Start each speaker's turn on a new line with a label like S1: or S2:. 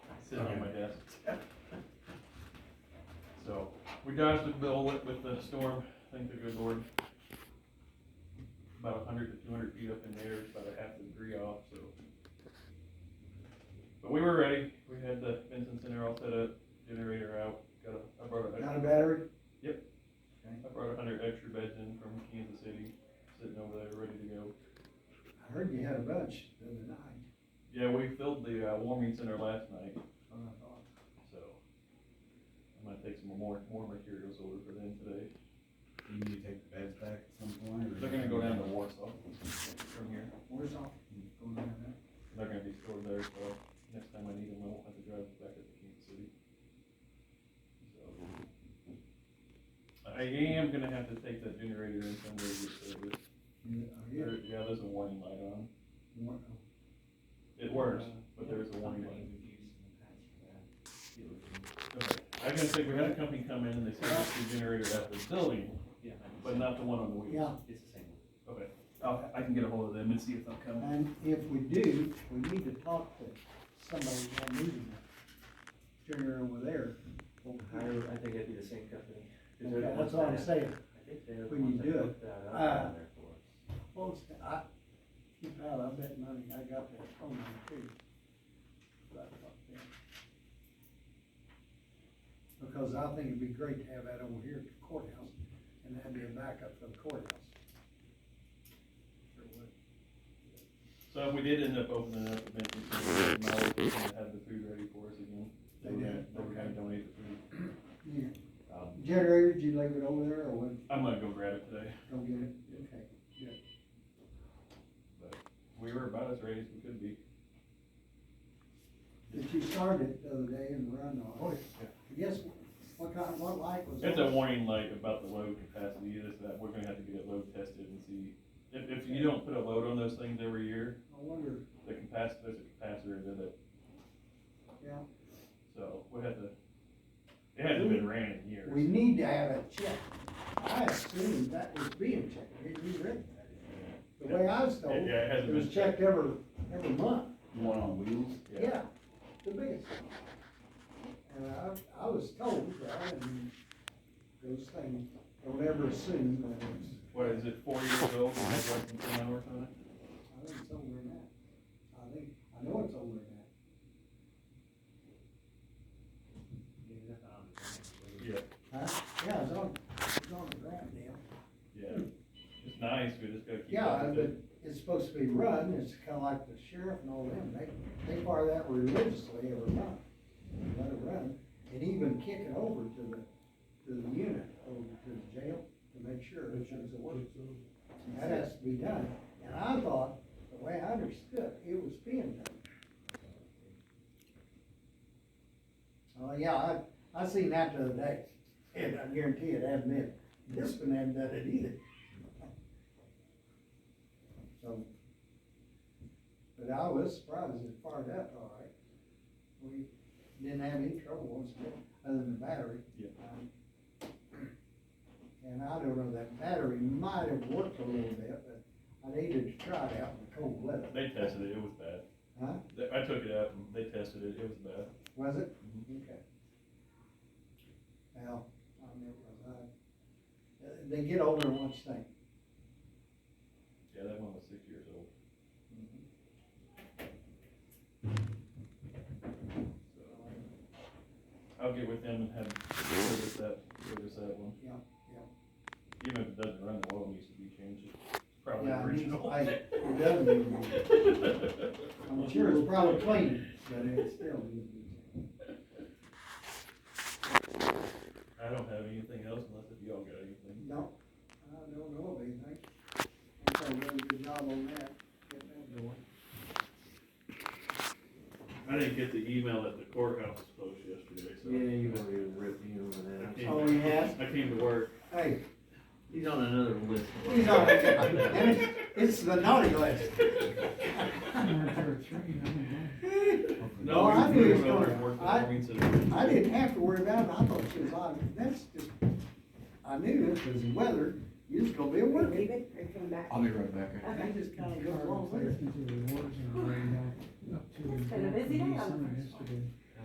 S1: sitting on my desk. So, we dodged the bullet with the storm, thank the good Lord. About a hundred to two hundred feet up in the air, it's about a half a degree off, so. But we were ready, we had the Vincent Center all set up, generator out, got a, I brought a.
S2: Not a battery?
S1: Yep.
S2: Okay.
S1: I brought a hundred extra beds in from Kansas City, sitting over there, ready to go.
S2: I heard you had a bunch the other night.
S1: Yeah, we filled the, uh, warming center last night,
S2: That's what I thought.
S1: so. I'm gonna take some more, more materials over for them today.
S3: You need to take the beds back at some point? or-
S1: They're gonna go down to Warsaw from here.
S2: Where's all, going on there?
S1: They're gonna be stored there, so next time I need them, I won't have to drive back up to Kansas City. So, I am gonna have to take that generator in someday to service.
S2: You, are
S1: There-
S2: you?
S1: Yeah, there's a warning light on.
S2: War-
S1: It works, but there's a warning light. Okay. I was gonna say, we had a company come in and they serviced the generator at the building,
S4: Yeah,
S1: but not the one on the wheels.
S2: Yeah,
S4: it's the same one.
S1: Okay, I'll, I can get ahold of them and see if they'll come.
S2: and if we do, we need to talk to somebody on meeting that generator over there.
S4: However, I think it'd be the same company. 'cause they're the
S2: Okay,
S4: ones
S2: That's what I'm
S4: that-
S2: saying.
S4: I think they're the
S2: When you
S4: ones that
S2: do it,
S4: put that up
S2: uh,
S4: on there for us.
S2: Well, it's- I, keep out, I bet money, I got that phone number too. But I thought that- Because I think it'd be great to have that over here at the courthouse, and that'd be a backup for the courthouse. Sure would.
S1: So if we did end up opening up the business, we might have the food ready for us again.
S2: They did,
S1: They were gonna
S2: okay.
S1: donate the food.
S2: Yeah.
S1: Um,
S2: Generator, did you leave it over there, or what,
S1: I'm gonna go grab it today,
S2: go get it? Okay.
S1: but we were about as ready as we could be.
S2: Did you start it the other day and run on it? I guess, what kind, what light was?
S1: Oh, It's a
S2: on?
S1: warning light about the load capacity, it is that we're gonna have to get it load tested and see. If, if you don't put a load on those things every year,
S2: I wonder,
S1: the capacitor, there's a capacitor in it,
S2: yeah.
S1: so we had to, it hasn't been ran in
S2: We
S1: years.
S2: need to have a check. I assumed that was being checked, Did you read that? The way I was told,
S1: Yeah, it hasn't
S2: it was
S1: been
S2: checked every, every month,
S3: The one on wheels?
S2: yeah, the biggest one. And I, I was told, but I didn't, those things, don't ever assume that it's,
S1: What is it, four years old, and has less than ten hours on it?
S2: I think it's older than that. I think, I know it's older than that.
S1: Yeah.
S2: Huh? Yeah, it's on, it's on the ground now.
S1: Yeah, it's nice, we just gotta keep up
S2: Yeah,
S1: with
S2: but
S1: it.
S2: it's supposed to be run, it's kinda like the sheriff and all them, they, they fire that religiously every month. Let it run, and even kick it over to the, to the unit, over to the jail, to make sure it does the work. That has to be done, and I thought, the way I understood, it was being done. Oh, yeah, I, I seen that the other day, and I guarantee it hadn't been, this one hadn't done it either. So, but I was surprised it fired up all right. We didn't have any trouble once again, other than the battery.
S1: Yeah.
S2: Um, And I don't know, that battery might have worked a little bit, but I needed to try it out in the cold weather.
S1: They tested it, it was bad.
S2: Huh?
S1: They- I took it out and they tested it, it was bad.
S2: Was it? Mm-hmm. Okay. Well, I mean, it was, uh, they get older once they,
S1: Yeah, that one was six years old. So, I'll get with them and have, service that, service that one.
S2: yeah,
S1: Even if it doesn't run, the oil needs to be changed, it's probably
S2: yeah. it needs-
S1: original.
S2: I- It doesn't need to be. I'm sure it's probably clean, but it's still.
S1: I don't have anything else unless if y'all got anything.
S2: No, I don't know of anything. I think I did a good job on that. getting that going.
S1: I didn't get the email that the courthouse was closed yesterday,
S4: Yeah, you won't even rip me
S1: I
S4: over that.
S1: came-
S2: Oh, yeah?
S1: I came to work.
S2: Hey,
S4: He's on another list.
S2: he's on, and it's, it's the naughty list.
S1: No,
S2: Oh, I
S1: we
S2: knew
S1: we
S2: it was
S1: went over
S2: going.
S1: and worked the
S2: I-
S1: warming center.
S2: I didn't have to worry about it, I thought she was on, that's just, I knew it was the weather, you was gonna be working.
S5: Leave it or come back?
S3: I'll be right back.
S5: Okay.
S2: They just kinda go along with it.
S5: It's been a busy day on the first one.